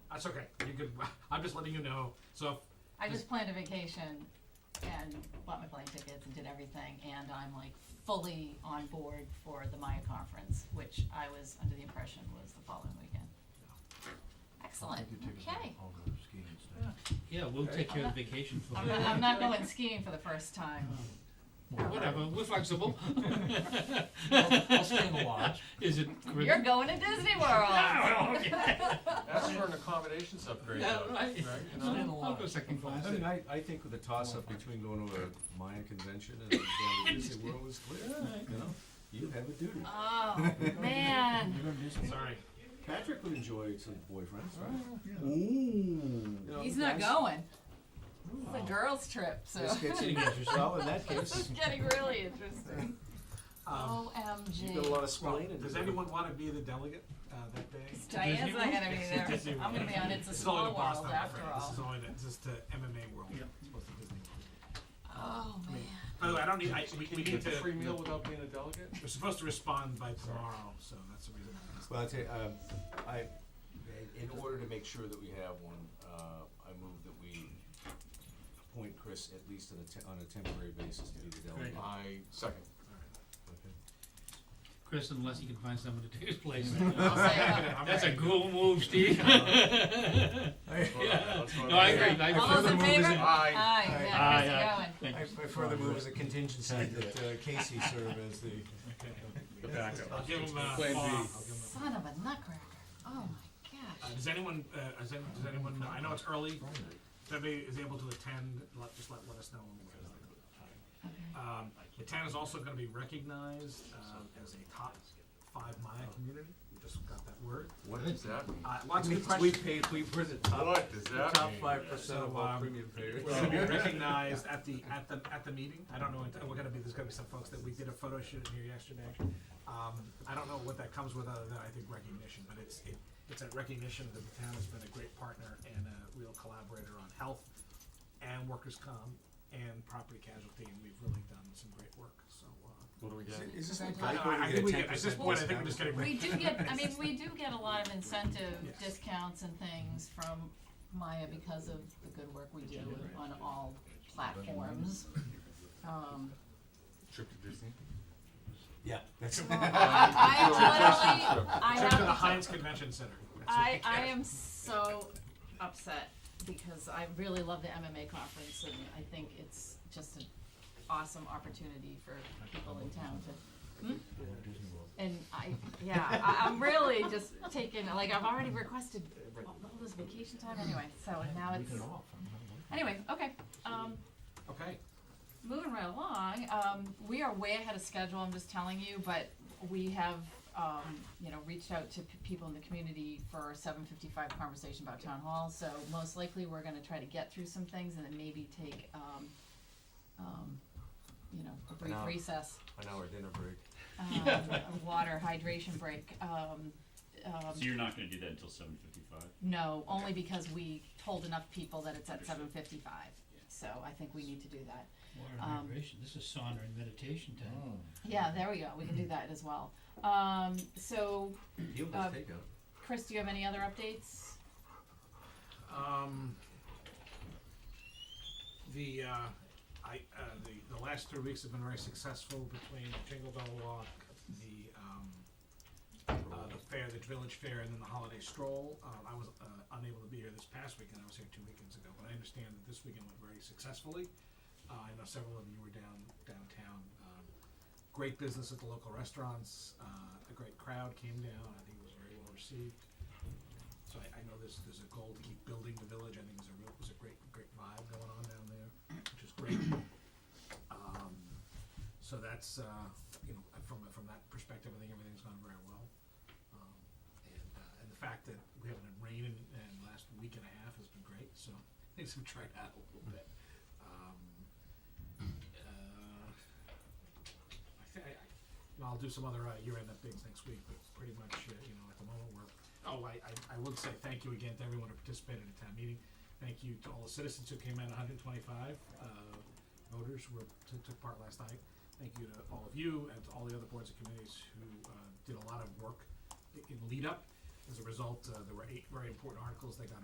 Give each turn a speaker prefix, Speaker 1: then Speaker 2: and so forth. Speaker 1: That's okay. You can. I'm just letting you know. So
Speaker 2: I just planned a vacation and bought my plane tickets and did everything, and I'm like fully on board for the Maya conference, which I was under the impression was the following weekend. Excellent, okay.
Speaker 3: Yeah, we'll take care of the vacation for
Speaker 2: I'm
Speaker 3: you.
Speaker 2: not, I'm not going skiing for the first time.
Speaker 3: Whatever, we're flexible.
Speaker 4: I'll, I'll stay in the lodge.
Speaker 3: Is it?
Speaker 2: You're going to Disney World.
Speaker 3: Ah, well, okay.
Speaker 5: Ask for an accommodations upgrade
Speaker 3: Yeah,
Speaker 5: though, right?
Speaker 3: right.
Speaker 5: You know?
Speaker 4: Stand
Speaker 3: I'll
Speaker 4: alone.
Speaker 3: go second class.
Speaker 6: I mean, I, I think with the toss-up between going to a Mayan convention and uh, going to Disney World is clear, you know, you have a duty.
Speaker 2: Oh, man.
Speaker 1: sorry.
Speaker 6: Patrick would enjoy some boyfriends, right? Ooh. You know,
Speaker 2: uh, He's not
Speaker 6: guys-
Speaker 2: going. It's a girls' trip, so
Speaker 6: This gets you, well, in that
Speaker 2: it's
Speaker 6: case,
Speaker 2: getting really interesting.
Speaker 1: Um,
Speaker 6: you've got a lot
Speaker 2: OMG.
Speaker 6: of splaining.
Speaker 1: does
Speaker 6: to do.
Speaker 1: anyone want to be the delegate uh, that day?
Speaker 2: Diane's not gonna be
Speaker 3: It's
Speaker 2: there.
Speaker 3: Disney
Speaker 2: I'm gonna be on It's a
Speaker 1: This is
Speaker 2: Small
Speaker 1: only to
Speaker 2: World
Speaker 1: Boston, I'm
Speaker 2: after
Speaker 1: afraid. This
Speaker 2: all.
Speaker 1: is only to, just to MMA world. It's supposed to Disney.
Speaker 2: Oh, man.
Speaker 1: By the way, I don't need. I, we,
Speaker 5: Can
Speaker 1: we
Speaker 5: you get
Speaker 1: need to.
Speaker 5: the free meal without being a delegate?
Speaker 1: We're supposed to respond by tomorrow, so that's the reason. I just-
Speaker 6: Well, I tell you, um, I, in- in order to make sure that we have one, uh, I move that we appoint Chris at least on a, te- on a temporary basis to be the delegate.
Speaker 3: Great.
Speaker 5: I second.
Speaker 3: Chris, unless he can find someone to take his place.
Speaker 2: I'll say, uh,
Speaker 1: I'm
Speaker 3: That's a
Speaker 1: ready.
Speaker 3: cool move, Steve.
Speaker 5: Let's vote on that. Let's vote on
Speaker 3: No, I
Speaker 5: that.
Speaker 3: agree, I
Speaker 2: All those
Speaker 3: agree. Ah,
Speaker 2: in favor?
Speaker 5: Aye.
Speaker 2: Aye, yeah, Chris,
Speaker 3: Aye,
Speaker 2: you're
Speaker 3: aye.
Speaker 2: going.
Speaker 6: I further move as a contingency that uh, Casey serve as the.
Speaker 5: The backup.
Speaker 1: I'll give him a.
Speaker 4: Plan B.
Speaker 1: I'll give him a-
Speaker 2: Son of a nutcracker. Oh my
Speaker 1: Uh,
Speaker 2: gosh.
Speaker 1: does anyone, uh, does any, does anyone, know- I know it's early, if anybody is able to attend, let, just let, let us know. when we can. Um, the town is also gonna be recognized, uh, as a top five Maya community, we just got that word.
Speaker 5: What does that mean?
Speaker 1: Uh, lots of good
Speaker 6: We
Speaker 1: questions, Um,
Speaker 6: paid, we were the top,
Speaker 5: What does that mean?
Speaker 6: five percent
Speaker 1: of
Speaker 6: of
Speaker 1: all
Speaker 6: all premium payers.
Speaker 1: we're gonna be recognized at the, at the, at the meeting, I don't know, and we're gonna be, there's gonna be some folks that we did a photo shoot in here yesterday. Um, I don't know what that comes with other than I think recognition, but it's, it, it's a recognition that the town has been a great partner and a real collaborator on health and workers' comp and property casualty, and we've really done some great work, so, uh,
Speaker 5: What do we get?
Speaker 6: Is this
Speaker 2: I-
Speaker 6: like
Speaker 2: I
Speaker 6: Geico, you
Speaker 1: I
Speaker 6: get
Speaker 1: think
Speaker 6: a
Speaker 1: we get,
Speaker 6: 10%
Speaker 1: at this point, I think
Speaker 6: discount?
Speaker 1: I'm just getting
Speaker 2: We
Speaker 1: ready.
Speaker 2: do get, I mean, we do get a lot of incentive
Speaker 1: Yes.
Speaker 2: discounts and things from Maya because of the good work we do on all platforms. Um,
Speaker 5: Trip to Disney?
Speaker 6: Yeah, that's.
Speaker 2: I totally, I
Speaker 1: Trip
Speaker 2: have
Speaker 1: to the
Speaker 2: to
Speaker 1: Heinz Convention Center.
Speaker 2: I, I am so upset because I really love the MMA conference and I think it's just an awesome opportunity for people in town to. Hmm? And I, yeah, I, I'm really just taking, like, I've already requested all all this vacation time anyway, so now it's, anyway, okay. Um,
Speaker 1: Okay,
Speaker 2: Moving right along, um, we are way ahead of schedule, I'm just telling you, but we have, um, you know, reached out to p- people in the community for a seven fifty-five conversation about town hall, so most likely we're gonna try to get through some things and then maybe take, um, um, you know, a brief
Speaker 5: Now.
Speaker 2: recess,
Speaker 5: An hour dinner break.
Speaker 2: um, a water hydration break, um, um,
Speaker 7: So you're not gonna do that until seven fifty-five?
Speaker 2: no, only because we told enough people that it's at
Speaker 7: Understood.
Speaker 2: seven fifty-five, so I think we need to do that.
Speaker 3: Water
Speaker 2: Um,
Speaker 3: hydration, this is sauna and meditation time.
Speaker 2: Yeah, there we go, we can do that as well. Um, so,
Speaker 6: You
Speaker 2: Uh,
Speaker 6: must take out.
Speaker 2: Chris, do you have any other updates?
Speaker 1: um, the, uh, I, uh, the, the last three weeks have been very successful between Jingle Bell Walk, the, um, uh, the fair, the village fair, and then the holiday stroll. Um, I was uh, unable to be here this past weekend. I was here two weekends ago, but I understand that this weekend went very successfully. Uh, I know several of you were down downtown. Um, great business at the local restaurants. Uh, a great crowd came down. I think it was very well received. So I, I know there's there's a goal to keep building the village. I think there's a real there's a great great vibe going on down there, which is great. Um, so that's uh, you know from from that perspective, I think everything's gone very well. Um, and, uh, and the fact that we haven't had rain in, in the last week and a half has been great, so things have dried out a little bit. Um, uh, I think, I, and I'll do some other uh, year-end updates next week, but pretty much, uh, you know, at the moment, we're, oh, I, I, I would say thank you again to everyone who participated in town meeting. Thank you to all the citizens who came out, hundred and twenty-five, uh, voters were, took, took part last night. Thank you to all of you and to all the other boards and committees who, uh, did a lot of work i- in lead up. As a result, uh, there were eight very important articles that got